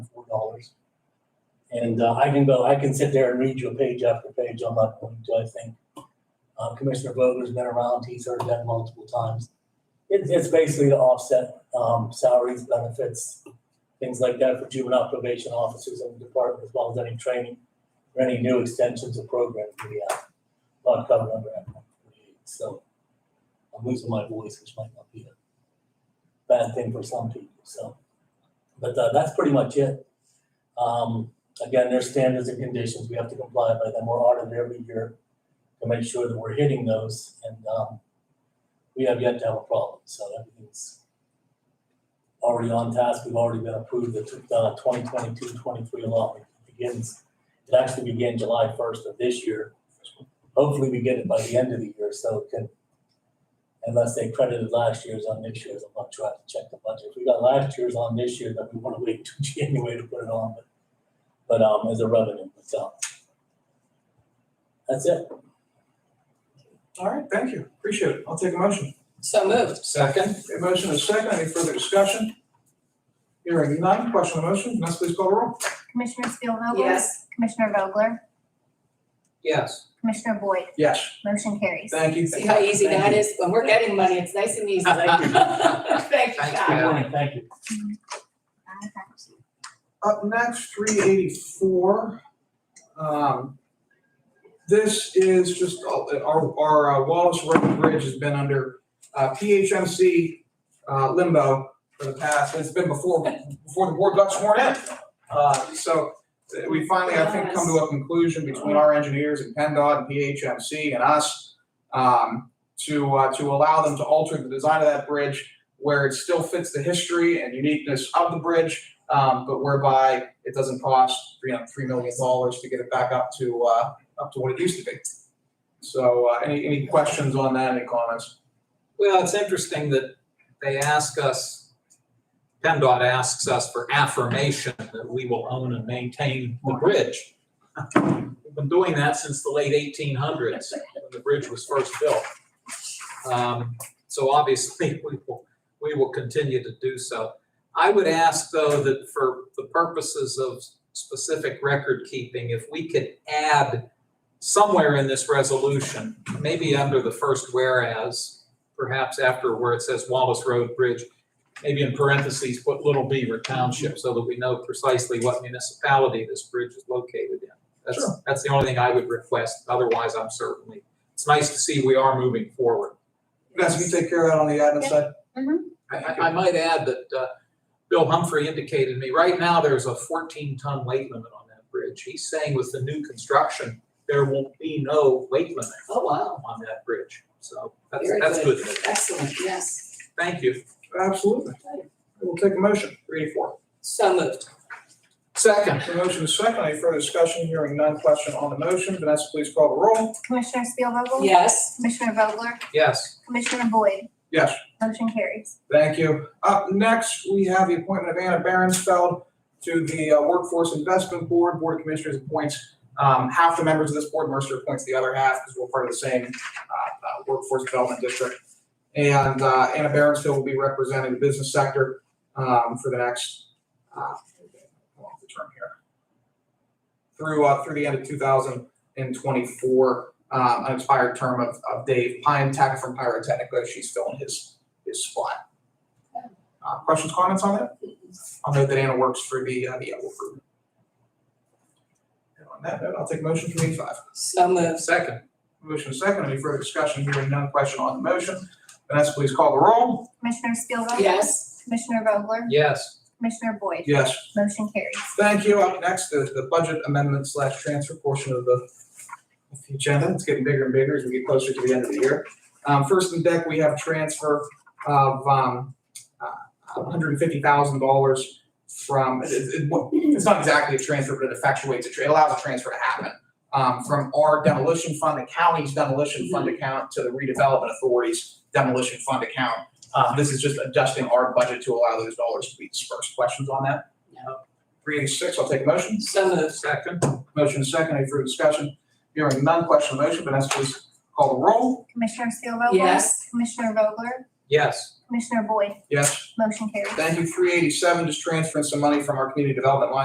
And uh, I can go, I can sit there and read you page after page. I'm not going to, I think. Uh, Commissioner Vogler's been around. He's heard that multiple times. It's, it's basically to offset um, salaries, benefits, things like that for juvenile probation officers in the department, as well as any training or any new extensions of programs we have. Not covered under Act 148. So I'm losing my voice, which might not be a bad thing for some people, so. But uh, that's pretty much it. Um, again, there's standards and conditions, we have to comply by them, we're audited every year to make sure that we're hitting those, and, um, we have yet to have a problem, so everything's already on task, we've already been approved, the uh, 2022-23 allotment begins, it actually began July first of this year. Hopefully, we get it by the end of the year, so it can, unless they credited last year's on this year's, I'm not sure, I have to check the budget. If we got last year's on this year, then we wanna wait till January to put it on, but but um, as a revenue, so. That's it. All right, thank you. Appreciate it. I'll take a motion. So moved. Second? A motion is second. Any further discussion? Hearing none. Question on the motion. Vanessa, please call the roll. Commissioner Spielvogel? Yes. Commissioner Vogler? Yes. Commissioner Boyd? Yes. Motion carries. Thank you. See how easy Thank that you. is? When we're getting money, it's nice and easy. Thank you. Thank you, Thanks, God. Pam. Thank you. Up next, three eighty-four. Um, this is just, our, our uh, Wallace Road Bridge has been under, uh, PHMC, uh, limbo for the past, it's been before, before the board got sworn in. Uh, so uh, we finally, I think, come to a conclusion between our engineers and PennDOT and PHMC and us, um, to, uh, to allow them to alter the design of that bridge where it still fits the history and uniqueness of the bridge, um, but whereby it doesn't cost three, three million dollars to get it back up to, uh, up to what it used to be. So, uh, any, any questions on that, any comments? Well, it's interesting that they ask us, PennDOT asks us for affirmation that we will own and maintain the bridge. We've been doing that since the late eighteen hundreds, when the bridge was first built. Um, So obviously, we will, we will continue to do so. I would ask, though, that for the purposes of specific record keeping, if we could add somewhere in this resolution, maybe under the first whereas, perhaps after where it says Wallace Road Bridge, maybe in parentheses, put Little Beaver Township so that we know precisely what municipality this bridge is located in. That's, that's the only thing I would request. Otherwise, I'm certainly, it's nice to see we are moving forward. Vanessa, can you take care of that on the admin side? I, I- I might add that, uh, Bill Humphrey indicated to me, right now, there's a fourteen ton weight limit on that bridge. He's saying with the new construction, there won't be no weight limit Oh, wow. on that bridge. So that's, Very that's good. Excellent, yes. Thank you. Absolutely. We'll take a motion, three to four. So moved. Second, The motion is second, any further discussion, hearing none, question on the motion, Vanessa, please call the roll. Commissioner Spielvogel? Yes. Commissioner Vogler? yes. Commissioner Boyd? Yes. Motion carries. Thank you. Up next, we have the appointment of Anna Berensfeld to the uh, Workforce Investment Board. Board of Commissioners appoints um, half the members of this board. Mercer appoints the other half because we're part of the same uh, uh, Workforce Development District. And uh, Anna Berensfeld will be representing the business sector um, for the next, uh, hold on, the term here, through, uh, through the end of 2024, um, an expired term of of Dave Pine Tech from Pyrotechnica. She's filling his, his spot. Uh, questions, comments on that? I'll note that Anna works for the, uh, the Elwood Group. And on that note, I'll take motion from eighty-five. So moved. Second, Motion is second, any further discussion, hearing none, question on the motion. Vanessa, please call the roll. Commissioner Spielvogel? Yes. Commissioner Vogler? yes. Commissioner Boyd? Yes. Motion carries. Thank you. Up next is the budget amendment slash transfer portion of the of the agenda. It's getting bigger and bigger as we get closer to the end of the year. Um, first in deck, we have transfer of, um, uh, hundred and fifty thousand dollars from, it, it- it- well, it's not exactly a transfer, but it effectuates, a tra- it allows a transfer to happen. Um, from our demolition fund, the county's demolition fund account to the redevelopment authority's demolition fund account. Uh, this is just adjusting our budget to allow those dollars to be dispersed. Questions on that? No. Three eighty-six, I'll take a motion. So moved. Second, Motion is second, any further discussion? Hearing none, question on the motion, Vanessa please call the roll. Commissioner Spielvogel? Yes. Commissioner Vogler? yes. Commissioner Boyd? Yes. Motion carries. Thank you, three eighty-seven, just transferring some money from our community development line